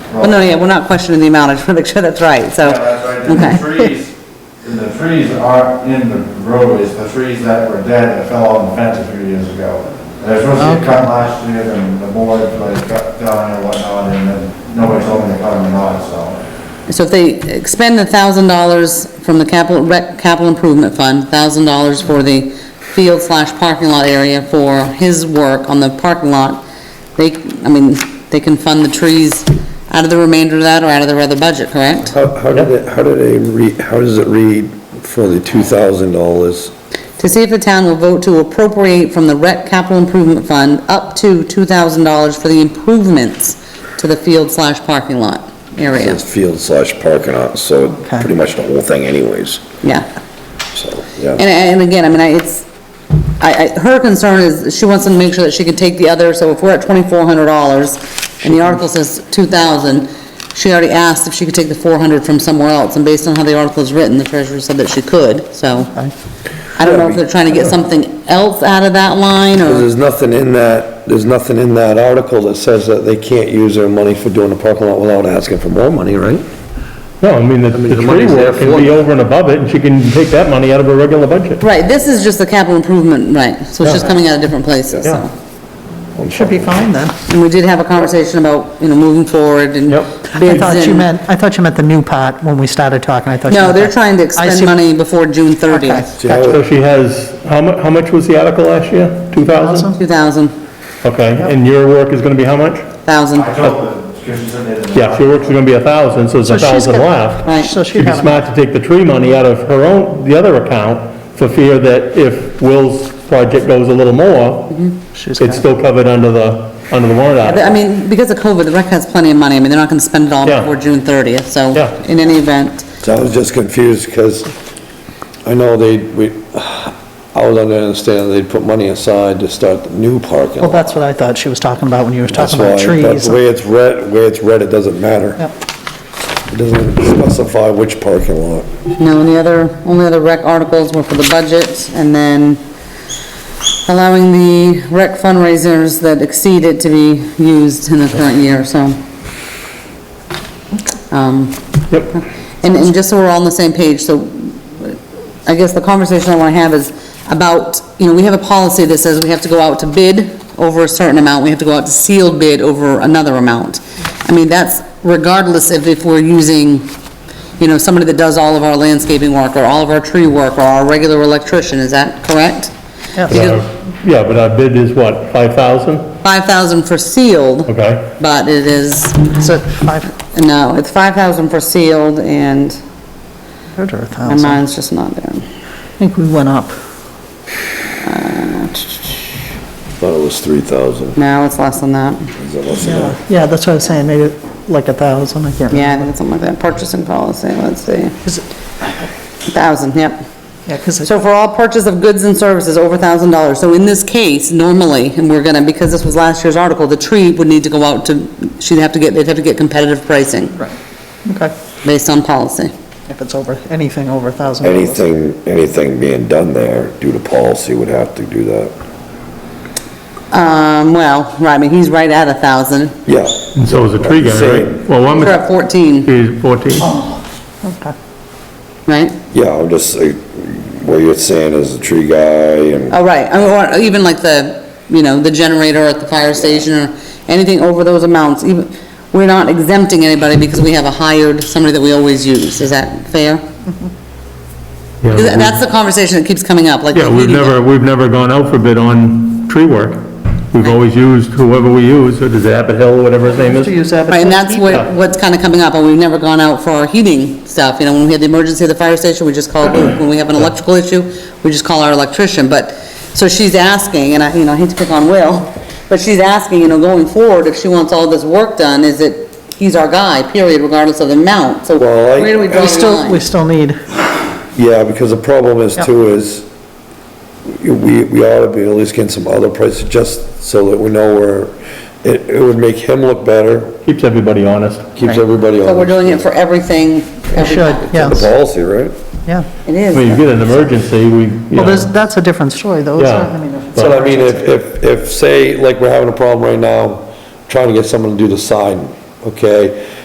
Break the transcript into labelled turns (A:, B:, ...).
A: Well, no, yeah, we're not questioning the amount, I just want to make sure that's right, so.
B: Yeah, that's right,
A: Oh. Okay.
B: and the trees, and the trees are in the roadways, the trees that were dead that fell on the fence a few years ago. And they're supposed to get cut last year, and the board, like, cut down and whatnot, and then nobody told me to cut them or not, so.
A: So if they expend a thousand dollars from the capital, rec, capital improvement fund, thousand dollars for the field slash parking lot area for his work on the parking lot, they, I mean, they can fund the trees out of the remainder of that or out of their other budget, correct?
C: How, how did it, how did it read, how does it read for the two thousand dollars?
A: To see if the town will vote to appropriate from the rec capital improvement fund up to two thousand dollars for the improvements to the field slash parking lot area,
C: It's field slash parking lot, so
A: Okay.
C: pretty much the whole thing anyways,
A: yeah.
C: so, yeah.
A: And, and again, I mean, I, it's, I, I, her concern is, she wants to make sure that she can take the other, so if we're at twenty-four hundred dollars, and the article says two thousand, she already asked if she could take the four hundred from somewhere else, and based on how the article is written, the treasurer said that she could, so. I don't know if they're trying to get something else out of that line,
C: Because
A: or,
C: there's nothing in that, there's nothing in that article that says that they can't use their money for doing a parking lot without asking for more money, right?
D: No, I mean, the the
C: the
D: tree
C: money's there
D: work can be
C: for it.
D: over and above it, and she can take that money out of her regular budget.
A: right, this is just the capital improvement, right, so it's just coming out of different places,
D: Yeah.
A: so.
E: Should be fine then.
A: And we did have a conversation about, you know, moving forward and
D: Yep.
E: I
A: bids
E: thought you
A: and-
E: meant, I thought you meant the new part when we started talking, I thought. you
A: No,
E: meant
A: they're
E: that.
A: trying to
E: I
A: expend
E: see-
A: money before June
E: Okay.
A: thirtieth.
C: See how
D: So
C: it-
D: she has, how mu, how much was the article last year? Two thousand?
A: 2,000,
D: Okay, and your work is gonna be how much?
A: 1,000,
B: I told them, because she said they didn't.
D: Yeah, if your work's gonna be a thousand, so there's a
E: So she's
D: thousand
E: got-
D: left.
A: right.
E: So she'd
D: She'd be
E: have,
D: smart to take the tree money out of her own, the other account, for fear that if Will's project goes a little more,
E: She's
D: it's still covered under the, under the warrant
A: But, I
D: article.
A: mean, because of COVID, the rec has plenty of money, I mean, they're not gonna spend it all
D: Yeah.
A: before June 30th, so,
D: Yeah.
A: in any event,
C: So I was just confused, because I know they, we, I was under the understanding they'd put money aside to start the new parking
E: well,
C: lot.
E: that's what I thought she was talking about when you were
C: That's
E: talking
C: why,
E: about
C: but
E: trees.
C: the way it's read, the way it's read, it doesn't matter.
E: Yep.
C: It doesn't specify which parking lot.
A: no, and the other, only other rec articles were for the budget, and then allowing the rec fundraisers that exceed it to be used in the current year, so. Um,
D: Yep,
A: And, and just so we're all on the same page, so I guess the conversation I want to have is about, you know, we have a policy that says we have to go out to bid over a certain amount, we have to go out to sealed bid over another amount. I mean, that's regardless of if we're using, you know, somebody that does all of our landscaping work, or all of our tree work, or our regular electrician, is that correct?
E: Yes.
D: But our- yeah, but our bid is what, five thousand?
A: Five thousand for sealed,
D: Okay.
A: but it is,
E: Is it five
A: no, it's five thousand for sealed, and
E: hundred or a
A: my
E: thousand?
A: mind's just not there.
E: I think we went up.
C: Thought it was three thousand.
A: No, it's less than that.
E: Yeah, yeah, that's what I was saying, maybe like a thousand, I can't remember.
A: Yeah, I think it's something like that, purchasing policy, let's see,
E: Is it-
A: thousand, yep.
E: Yeah, because
A: So for all purchase of goods and services over thousand dollars, so in this case, normally, and we're gonna, because this was last year's article, the tree would need to go out to, she'd have to get, they'd have to get competitive pricing
E: okay,
A: based on policy.
E: if it's over, anything over a thousand. dollars.
C: Anything, anything being done there due to policy would have to do that.
A: Um, well, right, I mean, he's right at a thousand,
C: Yeah,
D: And so is the tree guy,
C: Same.
D: right? Well, one
A: we're at
D: was,
A: fourteen,
D: he's 14.
E: Oh. Okay.
A: right?
C: yeah, I'm just, uh, what you're saying is the tree guy and
A: Oh, right, or or even like the, you know, the generator at the fire station, or anything over those amounts, even, we're not exempting anybody because we have a hired, somebody that we always use, is that fair? 'Cause
D: Yeah,
A: That's the conversation that keeps coming up, like.
D: we- Yeah, we've never, we've never gone out for bid on tree work. We've always used whoever we use, or is it Abbott Hill, whatever his name
E: To
D: is?
E: use that.
A: Right, and that's what, what's kinda coming up, and we've never gone out for our heating stuff, you know, when we had the emergency at the fire station, we just called, Luke. when we have an electrical issue, we just call our electrician, but, so she's asking, and I, you know, I hate to pick on Will, but she's asking, you know, going forward, if she wants all this work done, is it, he's our guy, period, regardless of the amount, so
C: Well, I-
A: where do we draw the
E: We still, we
A: line?
E: still need,
C: Yeah, because the problem is
E: Yep.
C: too is, we, we ought to be at least getting some other prices just so that we know where, it, it would make him look better,
D: Keeps everybody honest.
C: keeps everybody on.
A: So we're doing it for everything,
E: we
A: every
E: should,
A: time.
C: The
E: yes,
C: policy, right?
E: yeah.
A: It
D: When you
A: is,
D: get an emergency, we, you
E: Well, there's,
D: know,
E: that's a different story though, isn't it?
D: Yeah.
E: I mean, if-
C: So I mean, if, if, if, say, like, we're having a problem right now, trying to get someone to do the sign, okay?